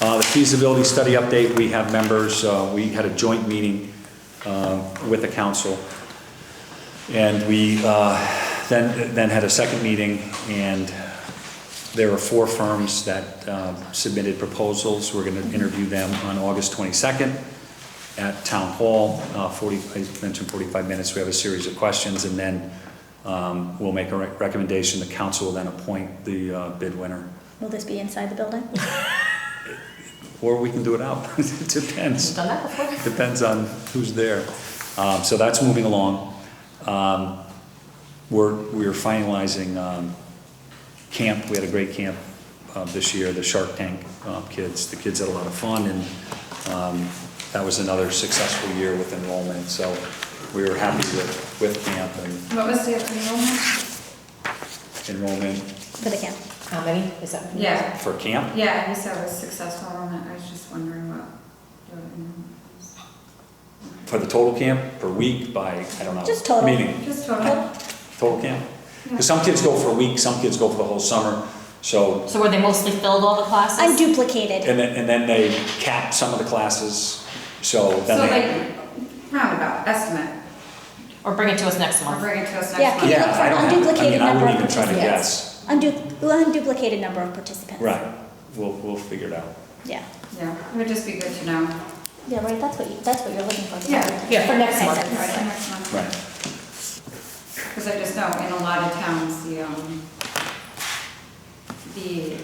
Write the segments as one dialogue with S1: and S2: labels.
S1: Uh, The feasibility study update, we have members, uh, we had a joint meeting um, with the council. And we uh, then, then had a second meeting, and there were four firms that um, submitted proposals. We're going to interview them on August 22nd at Town Hall, Uh, 40, I mentioned 45 minutes. We have a series of questions, and then um, we'll make a rec- recommendation. The council will then appoint the uh, bid winner.
S2: Will this be inside the building?
S1: Or we can do it out. It depends.
S3: Done that before?
S1: Depends on who's there. Um, So that's moving along. Um, We're, we're finalizing um, camp. We had a great camp uh, this year, the Shark Tank uh, kids. The kids had a lot of fun, and um, that was another successful year with enrollment. So we were happy with, with camp and
S4: What was the enrollment?
S1: enrollment
S2: For the camp?
S3: How many is that?
S4: Yeah,
S1: for camp.
S4: yeah, you said it was successful enrollment, I was just wondering what. the enrollment was.
S1: For the total camp, per week, by, I don't know.
S2: Just total.
S1: Meeting.
S4: Just total,
S1: total camp. Because some kids go for a week, some kids go for the whole summer, so,
S3: So were they mostly filled all the classes?
S2: Unduplicated.
S1: and then, and then they cap some of the classes, so
S4: so
S1: then they.
S4: like, roundabout estimate,
S3: Or bring it to us next
S4: or
S3: month?
S4: bring it to us
S2: Yeah,
S4: next
S2: can you
S4: month.
S2: look
S1: Yeah,
S2: for
S1: I
S2: an
S1: don't have, I
S2: unduplicated
S1: mean, I
S2: number
S1: wouldn't
S2: of
S1: even try to
S2: participants?
S1: guess.
S2: Undu- Unduplicated number of participants.
S1: Right, we'll, we'll figure it out.
S2: Yeah,
S4: Yeah, it would just be good to know.
S2: yeah, right, that's what you, that's what you're looking for.
S4: Yeah.
S3: Yeah, for next month.
S2: Right, right,
S4: Right,
S2: right.
S4: next month.
S1: Right,
S4: Because I just know in a lot of towns, the, um, the,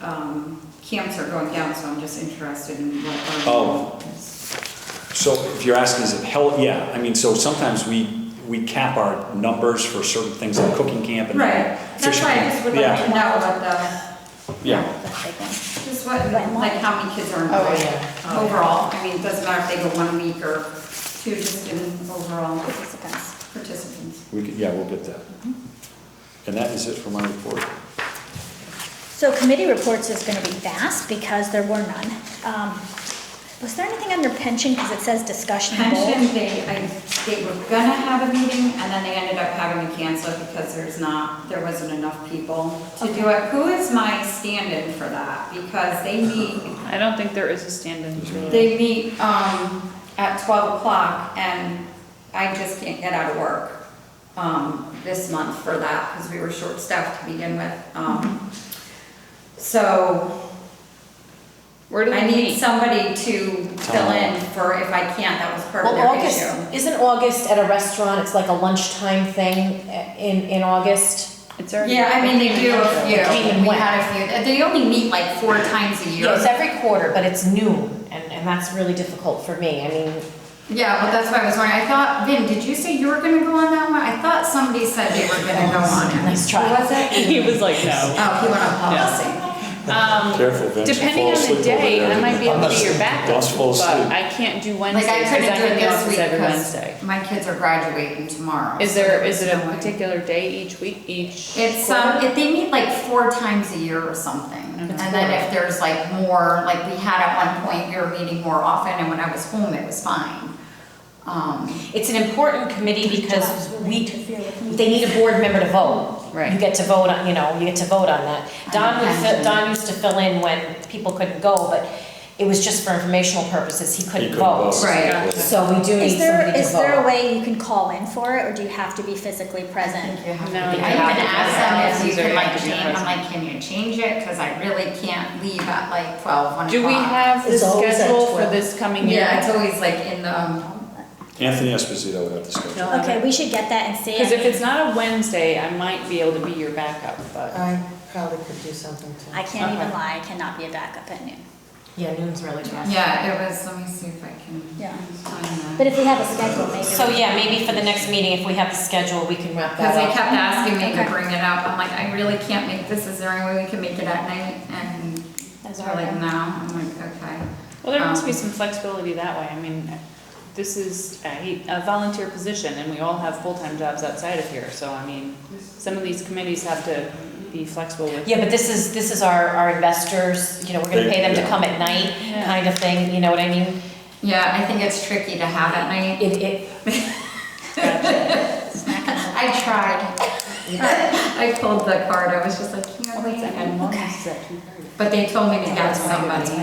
S4: um, camps are going down, so I'm just interested in what. um, our-
S1: Oh. so if you're asking, is it hell, yeah, I mean, so sometimes we, we cap our numbers for certain things like cooking camp and.
S4: Right, that's
S1: fishing
S4: why I
S1: camp.
S4: just would like to
S1: Yeah,
S4: know what the,
S1: yeah,
S2: That's a big one.
S4: just what,
S2: Right.
S4: like how many kids are
S3: Oh,
S4: involved
S3: yeah. Oh, yeah.
S4: overall. I mean, it doesn't matter if they go one week or two, just in overall
S2: Participants.
S4: participants.
S1: we could, yeah, we'll get that. And that is it for my report.
S2: So committee reports is gonna be vast because there were none. Um, Was there anything under pension, because it says discussion of bold?
S4: Pension, they, I, they were gonna have a meeting and then they ended up having to cancel it because there's not, there wasn't enough people to do it. Who is my stand-in for that? Because they meet,
S5: I don't think there is a stand-in.
S4: they meet, um, at twelve o'clock and I just can't get out of work, um, this month for that because we were short-staffed to begin with. Um, so
S5: Where do
S4: I
S5: they
S4: need
S5: meet?
S4: somebody to fill in for if I can't, that was part of
S3: Well,
S4: their
S3: August,
S4: issue.
S3: isn't August at a restaurant, it's like a lunchtime thing uh, in, in August?
S5: It's already.
S4: Yeah, I mean, they do a
S3: They came and
S4: few, we
S3: went.
S4: had a few, they only meet like four times a year.
S3: Yeah, it's every quarter, but it's noon, and, and that's really difficult for me, I mean,
S4: Yeah, well, that's why I was wondering, I thought, Vin, did you say you were gonna go on that one? I thought somebody said they were gonna go on it.
S3: Nice try.
S4: Who Was it?
S5: He was like, no.
S4: Oh, he went on policy.
S5: Um,
S1: Careful, Vince, you
S5: Depending
S1: fall
S5: on
S1: asleep
S5: the
S1: over
S5: day,
S1: there.
S5: I might be able to get your back up,
S1: Don't fall
S5: but
S1: asleep.
S5: I can't do
S4: Like,
S5: Wednesday,
S4: I
S5: because I'm
S4: couldn't do
S5: in
S4: it
S5: the
S4: this
S5: office
S4: week
S5: every
S4: because
S5: Wednesday.
S4: my kids are graduating tomorrow.
S5: Is
S4: so
S5: there, is it a
S4: no way.
S5: particular day each week, each?
S4: It's,
S5: quarter? Mm-hmm.
S4: um, if they meet like four times a year or something. And then if there's like more, like we had at one point, we were meeting more often and when I was home, it was fine. Um,
S3: it's an important committee because we,
S2: Interfere with me.
S3: they need a board member to vote.
S5: Right.
S3: You get to vote on, you know, you get to vote on that. Don would, fi- Don used to fill in when people couldn't go, but it was just for informational purposes, he couldn't
S1: You could
S3: vote.
S1: vote.
S4: Right.
S5: Gotcha.
S3: So we do
S2: Is
S3: need
S2: there,
S3: somebody to vote.
S2: is there a way you can call in for it, or do you have to be physically present?
S4: You have to-
S5: No,
S4: I
S5: you
S4: even
S5: have to be
S4: asked them if you
S5: present.
S4: can like
S5: These are your
S4: change, I'm
S5: present.
S4: like, can you change it? Because I really can't leave at like twelve, one o'clock.
S5: Do we have the
S3: It's always at
S5: schedule for
S3: 12.
S5: this coming year?
S4: Yeah, it's always like in the, um,
S1: Anthony Esposito would have to schedule.
S5: No.
S2: Okay, we should get that and see.
S5: Because if it's not a Wednesday, I might be able to be your backup, but
S6: I probably could do something
S2: I
S6: too.
S2: can't even
S5: Okay.
S2: lie, I cannot be a backup at noon.
S3: Yeah, noon's really bad.
S4: yeah, it was, let me see if I can
S2: Yeah.
S4: find
S2: But
S4: that.
S2: if we have a schedule, maybe.
S3: So yeah, maybe for the next meeting, if we have the schedule, we can wrap
S4: Because they
S3: that up.
S4: kept asking me to
S2: Okay.
S4: bring it up, I'm like, I really can't make this, is there any way we can make it at night? And
S2: That's
S4: they're
S2: all
S4: like,
S2: right.
S4: no, I'm like, okay.
S5: Well, there must be
S4: Um,
S5: some flexibility that way. I mean, this is a a volunteer position and we all have full-time jobs outside of here. So I mean, some of these committees have to be flexible with.
S3: Yeah, but this is, this is our, our investors, you know, we're gonna pay them to come at night,
S5: Yeah.
S3: kind of thing, you know what I mean?
S4: Yeah, I think it's tricky to have at night.
S3: It, it,
S4: I tried. I pulled the card, I was just like, can you wait?
S5: Wednesday.
S4: But they told me to get somebody.